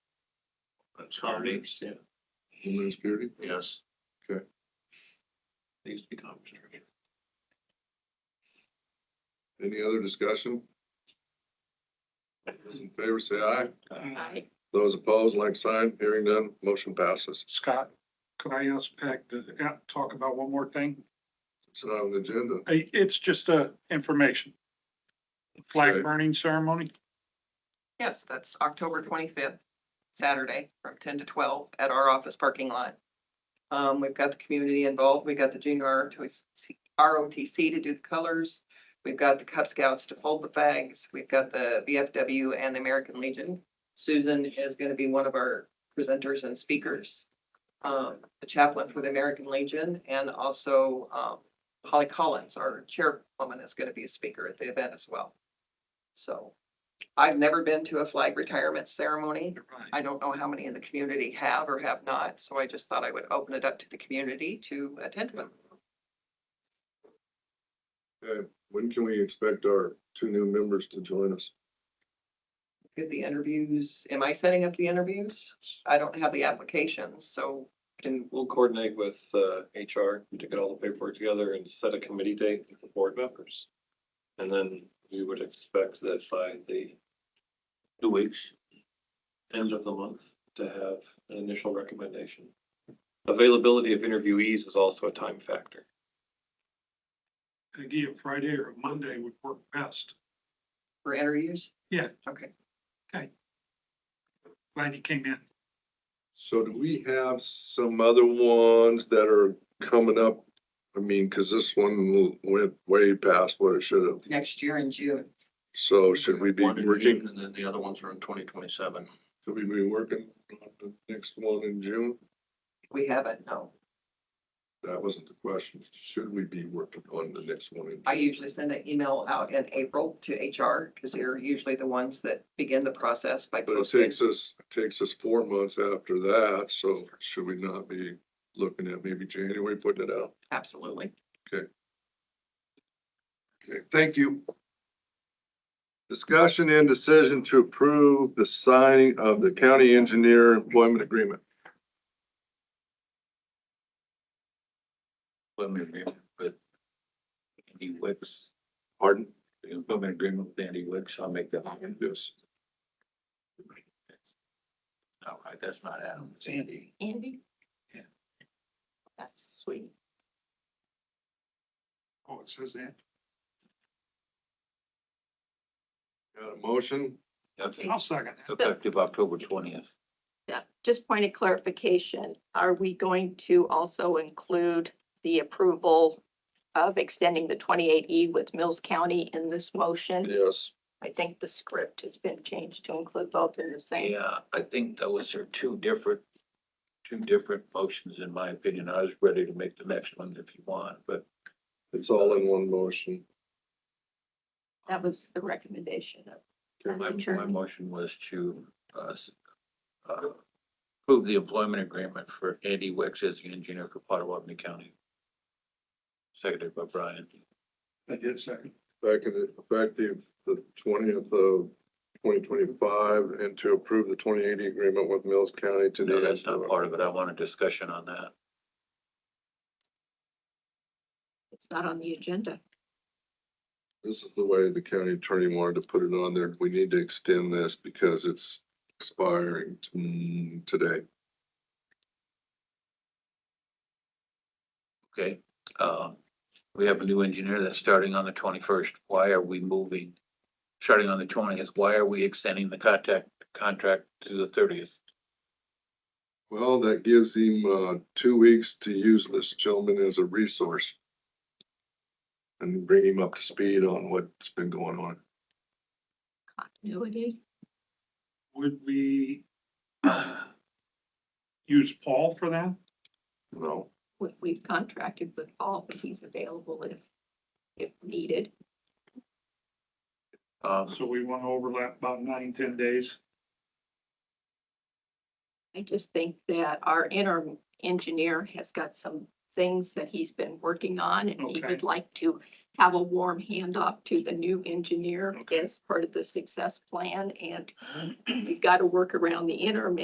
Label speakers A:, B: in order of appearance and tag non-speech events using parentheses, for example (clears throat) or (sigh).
A: That's Hardy.
B: yeah.
C: Homeland Security?
A: Yes.
C: Okay.
A: Needs to be conversation.
C: Any other discussion? Those in favor, say aye.
D: Aye.
C: Those opposed, like sign. Hearing none, motion passes.
B: Scott, could I ask Peg to uh, talk about one more thing?
C: It's not on the agenda.
B: I- It's just uh, information.
C: Okay.
B: Flag burning ceremony,
D: Yes, that's October twenty-fifth, Saturday, from ten to twelve at our office parking lot. Um, we've got the community involved. We've got the junior ROTC ROTC to do the colors. We've got the Cub Scouts to fold the fags. We've got the VFW and the American Legion. Susan is gonna be one of our presenters and speakers. Um, the chaplain for the American Legion and also, um, Holly Collins, our chairwoman, is gonna be a speaker at the event as well. So I've never been to a flag retirement ceremony. I don't know how many in the community have or have not, so I just thought I would open it up to the community to attend one.
C: Okay, when can we expect our two new members to join us?
D: Get the interviews. Am I setting up the interviews? I don't have the applications, so
A: And we'll coordinate with uh, HR to get all the paperwork together and set a committee date with the board members. And then we would expect that by the two weeks, end of the month, to have an initial recommendation. Availability of interviewees is also a time factor.
B: again, Friday or Monday would work best.
D: for interviews?
B: Yeah.
D: Okay.
B: Glad you came in.
C: So do we have some other ones that are coming up? I mean, because this one went way past what it should have.
D: Next year in June.
C: So should we be
A: One in
C: working,
A: June, And then the other ones are in twenty twenty-seven.
C: should we be working on the next one in June?
D: We haven't, no.
C: That wasn't the question. Should we be working on the next one? in
D: I
C: June?
D: usually send an email out in April to HR because they're usually the ones that begin the process by
C: But it
D: posting.
C: takes us, it takes us four months after that, so should we not be looking at maybe January putting it out?
D: Absolutely.
C: Okay, thank you. Discussion and decision to approve the signing of the county engineer employment agreement.
E: employment agreement with Andy Wicks,
C: Pardon?
E: the employment agreement with Andy Wicks, I'll make that. motion.
C: Yes.
E: All right, that's not Adam, it's Andy.
D: Andy?
E: Yeah.
D: That's sweet.
B: Oh, it says that.
C: Got a motion?
E: Okay,
B: I'll second that.
E: Effective October twentieth.
F: Yeah, just point of clarification, are we going to also include the approval of extending the twenty-eight E with Mills County in this motion?
C: Yes.
F: I think the script has been changed to include both in the same.
E: Yeah, I think those are two different, two different motions, in my opinion. I was ready to make the next one if you want, but
C: It's all in one motion.
F: That was the recommendation of
E: my,
F: Madam
E: my
F: Attorney.
E: motion was to, uh, s- uh, approve the employment agreement for Andy Wicks as the engineer for Potawatomi County. Seconded by Brian.
B: I did second.
C: Back in effective the twentieth of twenty twenty-five and to approve the twenty eighty agreement with Mills County to.
E: No, that's not part of it. I want a discussion on that.
F: It's not on the agenda.
C: This is the way the county attorney wanted to put it on there. We need to extend this because it's expiring t- mm, today.
E: Okay, um, we have a new engineer that's starting on the twenty-first. Why are we moving? Starting on the twentieth, why are we extending the contact, contract to the thirtieth?
C: Well, that gives him, uh, two weeks to use this gentleman as a resource. And bring him up to speed on what's been going on.
F: Continuity.
B: Would we use Paul for that?
C: No,
F: We- We've contracted with Paul, but he's available if, if needed.
E: Um,
B: So we want to overlap about nine, ten days.
F: I just think that our interim engineer has got some things that he's been working on and he
B: Okay.
F: would like to have a warm handoff to the new engineer
B: Okay. (clears throat)
F: as part of the success plan and we've got to work around the interim